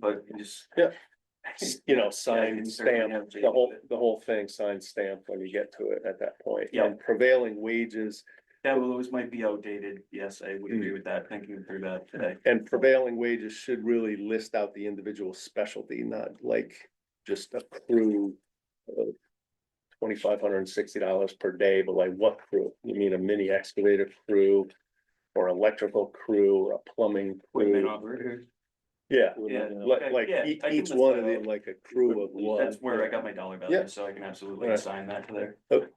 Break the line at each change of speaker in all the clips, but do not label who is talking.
but you just.
Yeah. you know, sign,
can
stamp,
certainly have
the
Jake
whole,
do it.
the whole thing, sign, stamp when you get to it at that point.
Yeah.
And prevailing wages
That will always might be outdated. Yes, I would agree with that, thinking through that uh, today.
and prevailing wages should really list out the individual specialty, not like just a crew. Twenty-five hundred and sixty dollars per day, but like what crew? You mean a mini excavator crew? Or electrical crew, or a plumbing
Equipment
crew?
operator.
Yeah,
Yeah,
like,
okay,
like
yeah,
each,
I can
each
list
one
that
of them,
out.
like a crew of one.
That's where I got my dollar
Yeah.
value, so I can absolutely
Right.
assign that to there.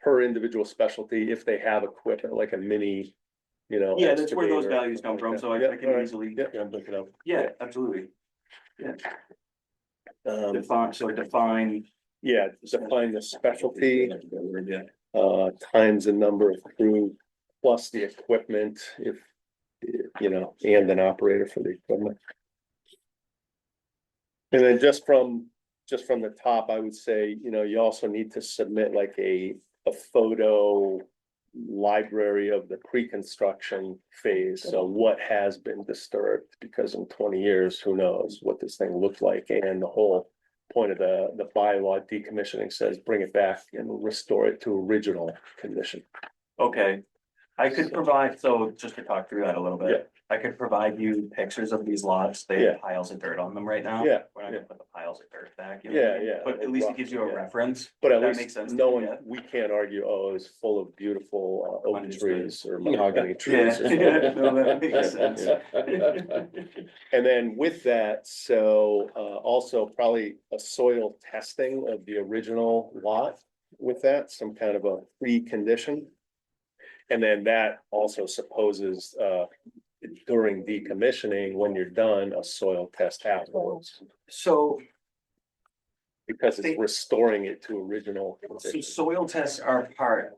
per individual specialty if they have equipment like a mini, you know.
Yeah, that's where those
excavator or
values come
something
from,
like
so
that.
I I
Yeah,
can
alright.
easily,
Yeah, I'm looking up.
yeah, absolutely.
Um,
Define, so define.
yeah, define the specialty,
Yeah.
uh, times the number of crew plus the equipment if, you know, and an operator for the equipment. And then just from, just from the top, I would say, you know, you also need to submit like a, a photo library of the pre-construction phase, so what has been disturbed, because in twenty years, who knows what this thing looked like, and the whole point of the, the bylaw decommissioning says, bring it back and restore it to original condition.
Okay, I could provide, so just to talk through that a little bit, I could provide you pictures of these lots, they
Yeah.
have piles of dirt on them right now.
Yeah,
We're not gonna put the piles of dirt back. you know what I
Yeah,
mean?
yeah.
But at least it gives you a
Yeah.
reference.
But
That
at
makes
least
sense to me,
knowing,
yeah.
we can't argue, oh, it's full of beautiful uh, oak
Understood.
trees or mahogany trees.
Yeah, yeah, no, that makes sense.
And then with that, so uh also probably a soil testing of the original lot with that, some kind of a pre-condition. And then that also supposes uh during decommissioning, when you're done, a soil test afterwards.
So,
Because it's restoring it to original.
so
condition.
soil tests are part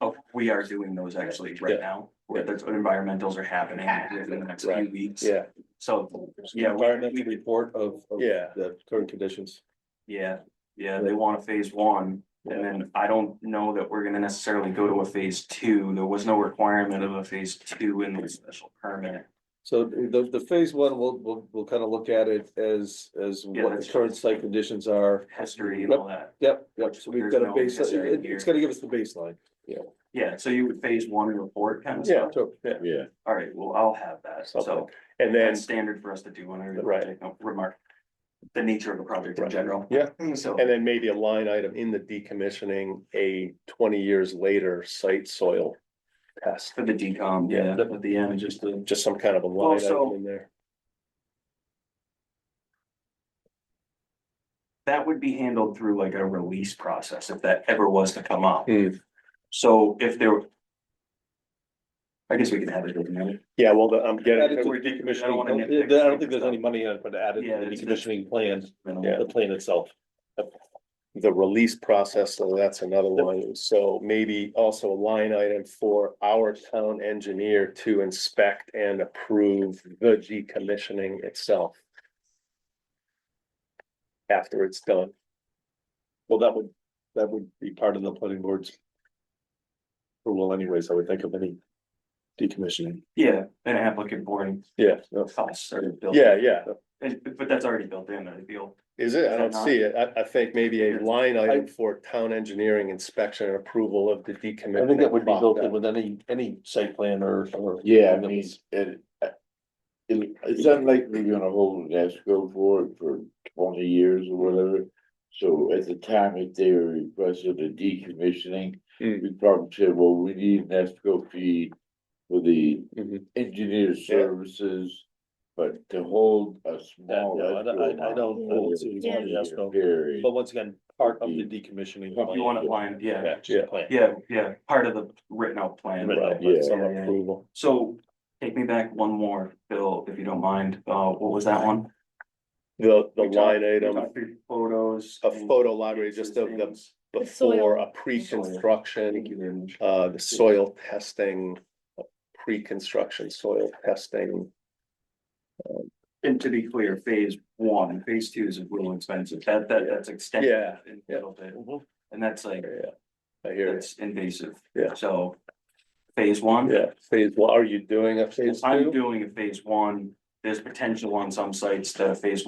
of, we are doing those actually right
Yeah.
now, where the environmentals are happening within the next few
Right.
weeks.
Yeah,
So, yeah, we-
Environmental report of, of
yeah,
the current conditions.
yeah, yeah, they want a phase one. And then I don't know that we're gonna necessarily go to a phase two. There was no requirement of a phase two in the special permit.
So the, the phase one, we'll, we'll, we'll kind of look at it as, as
Yeah,
what
that's-
the current site conditions are.
History and all that.
Yep, yep, so we've got a
There's no necessary
baseline, it's gonna give us the baseline.
Yeah, so you would phase one report kind of
yeah,
stuff.
So,
yeah,
yeah,
All right, well, I'll have that. So
something. And then,
that's standard for us to do when I
Right.
take a remark. The nature of a project in
Right.
general.
Yeah.
So,
and then maybe a line item in the decommissioning, a twenty years later site soil test.
for the decom, yeah,
Yeah.
at the end, just the.
just some kind of a line
so-
item in there.
that would be handled through like a release process if that ever was to come up.
Hmm.
So if there. I guess we can have it. doesn't matter.
Yeah, well, the- I'm
Yeah,
getting,
it's-
We're decommissioning.
I don't think there's any money in it, but added
Yeah,
to the
it's-
decommissioning plan,
Yeah.
the plan itself.
the release process, so that's another one. So maybe also a line item for our town engineer to inspect and approve the decommissioning itself. After it's done.
Well, that would, that would be part of the planning board's. Well, anyways, I would think of any decommissioning.
Yeah, an applicant boarding
Yeah,
costs are built.
yeah, yeah.
And but that's already built in, I feel.
Is it? I
Is that
don't
not-
see it. I, I think maybe a
Yeah.
line item for town engineering inspection and approval of the decommissioning.
I think that would be built
process.
in with any, any site plan or, or.
Yeah, I mean, it, uh, it, it's unlikely you're gonna hold an escrow for it for twenty years or whatever. So at the time if they requested a decommissioning,
Hmm.
Mm.
we probably said, well, we need an escrow fee for the
Mm-hmm.
Mhm.
engineer services. But to hold a
Yeah,
small.
no, I don't-
escrow
I- I
amount
don't- I don't
over
see
a
the
20-year
escrow.
period,
But once again, part of the decommissioning.
You want to line, yeah,
Yeah.
plan.
yeah, yeah, part of the written out plan.
Right.
Right,
Yeah.
some
Yeah, yeah.
approval.
So take me back one more, Bill, if you don't mind. Uh, what was that one?
The, the
We talked-
line
we
item.
talked through Photos.
a
and
photo library just of the
things.
The soil.
before, a
Thank you
pre-construction,
very much.
uh, the soil testing, uh, pre-construction soil testing.
And to be clear, phase one and phase two is a little expensive. That, that, that's extended.
Yeah,
in a
yeah.
little bit. And that's like,
Yeah, I hear it.
that's invasive.
Yeah.
So phase one.
Yeah, phase, well, are you doing a phase 2
I'm doing a phase one. There's potential on some sites to phase